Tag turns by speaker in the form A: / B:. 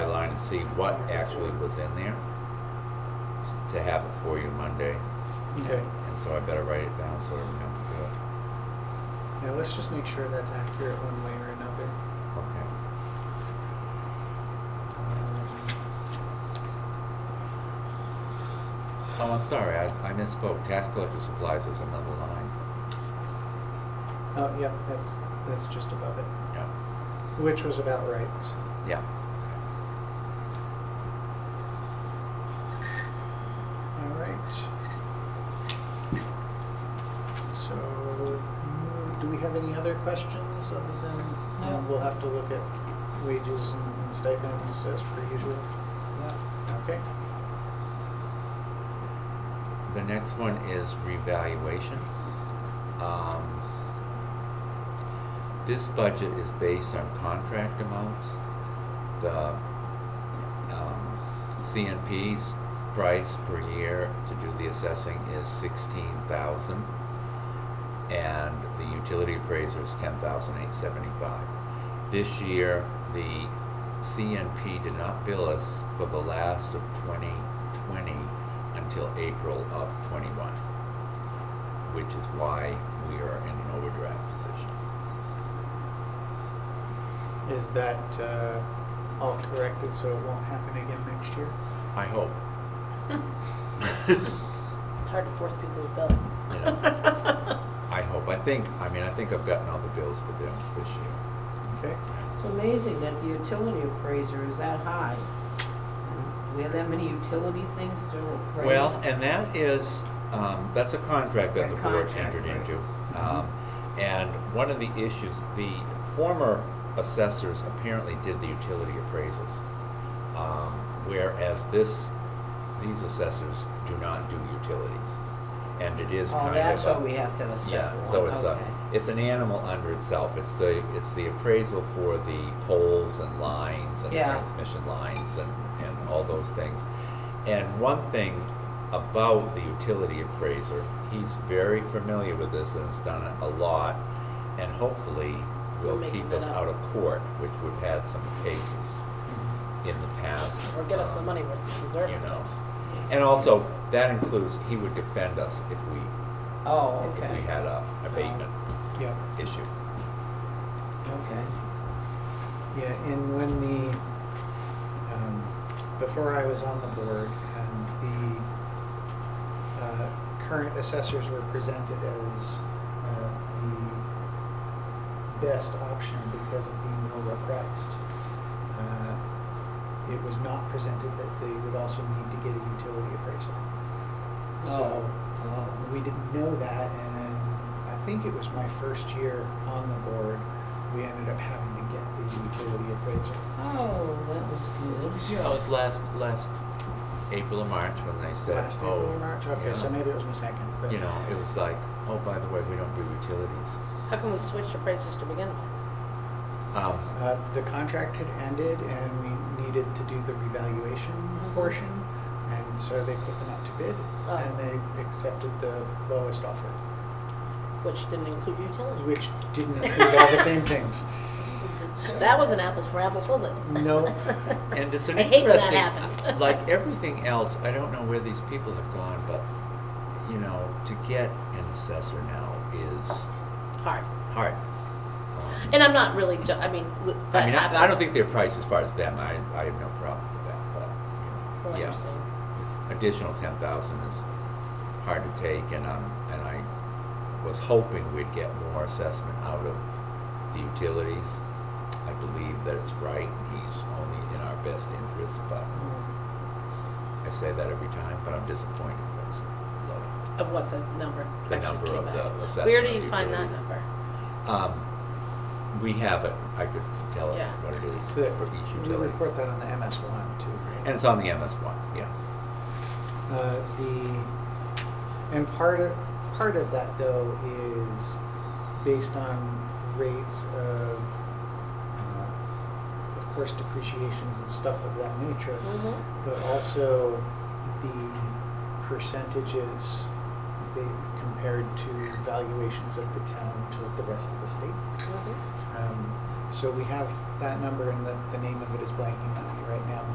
A: see what actually was in there to have it for you Monday.
B: Okay,
A: And so I better write it down so I remember to do it.
B: now let's just make sure that's accurate one way or another.
A: Okay.
B: Um,
A: Oh, I'm sorry, I, I misspoke. Tax collector supplies is another line.
B: Oh, yep, that's, that's just above it,
A: Yeah.
B: which was about right.
A: Yeah.
B: All right. So, do we have any other questions other than, you know,
C: No.
B: we'll have to look at wages and and stipends as per usual? Okay,
A: The next one is revaluation. Um, This budget is based on contract amounts. The um, CNP's price per year to do the assessing is sixteen thousand. And the utility appraiser is ten thousand eight seventy-five. This year, the CNP did not bill us for the last of twenty twenty until April of twenty-one, which is why we are in an overdraft position.
B: is that uh, all corrected so it won't happen again next year?
A: I hope.
C: It's hard to force people to bill.
A: I hope. I think, I mean, I think I've gotten all the bills for them this year.
B: Okay,
D: It's amazing that the utility appraiser is that high. We have that many utility things to appraise.
A: Well, and that is, um, that's a contract that the
D: A
A: board
D: contract,
A: entered
D: right. Mm-hmm.
A: into. Um, and one of the issues, the former assessors apparently did the utility appraisals. Um, whereas this, these assessors do not do utilities. And it is kind of
D: Oh, that's
A: a-
D: why we have to have a separate
A: Yeah,
D: one,
A: so it's a,
D: okay.
A: it's an animal under itself, it's the, it's the appraisal for the poles and lines and
D: Yeah.
A: transmission lines and, and all those things. And one thing about the utility appraiser, he's very familiar with this and has done it a lot, and hopefully
C: We're
A: will
C: making
A: keep
C: that
A: us
C: up.
A: out of court, which we've had some cases in the past.
C: Or get us the
A: um,
C: money we're deserving.
A: You know, and also, that includes, he would defend us if we
D: Oh,
A: if we
D: okay,
A: had a abatement
B: yeah.
A: issue.
D: okay.
B: Yeah, and when the, um, before I was on the board, and the, uh, current assessors were presented as, uh, the best option because of being lower priced. Uh, It was not presented that they would also need to get a utility appraisal. So,
D: Oh,
B: we didn't know that, and I think it was my first year on the board, we ended up having to get the utility appraisal.
D: oh. Oh, that was good.
A: Yeah, it was last, last April or March when they said,
B: Last April
A: oh.
B: or March, okay,
A: you
B: so
A: know,
B: maybe it was my second, but.
A: You know, it was like, oh, by the way, we don't do utilities.
C: How can we switch to prices to begin with?
A: Um,
B: Uh, the contract had ended and we needed to do the revaluation portion, and so they put them out to bid,
C: Mm-hmm. Oh.
B: and they accepted the lowest offer,
C: Which didn't include utilities.
B: which didn't include all the same things.
C: That wasn't apples for apples, was it?
B: No.
A: And it's an
C: I hate
A: interesting.
C: when that happens.
A: Like everything else, I don't know where these people have gone, but, you know, to get an assessor now is
C: Hard.
A: hard. Um,
C: And I'm not really, ju- I mean, l-
A: I
C: that
A: mean,
C: happens.
A: I, I don't think they're priced as far as them, I, I have no problem with that, but,
C: Well, I
A: you know, yeah.
C: understand.
A: additional ten thousand is hard to take, and i and I was hoping we'd get more assessment out of the utilities. I believe that it's right, and he's only in our best interest, but I say that every time, but I'm disappointed that it's low.
C: Of what the number
A: The
C: actually
A: number
C: came
A: of
C: back.
A: the
C: Where
A: assessment
C: do
A: of
C: you find that
A: utilities.
C: number?
A: Um, we have it, I could tell it
C: Yeah.
A: what it is
B: It's the-
A: for each
B: We
A: utility.
B: report that on the MS one too. right?
A: And it's on the MS one, yeah.
B: Uh, the, and part of, part of that though is based on rates of, uh, of course depreciations and stuff of that nature,
C: Mhm.
B: but also the percentages they compared to valuations of the town to the rest of the state.
C: Mhm.
B: Um, So we have that number and the, the name of it is blanking on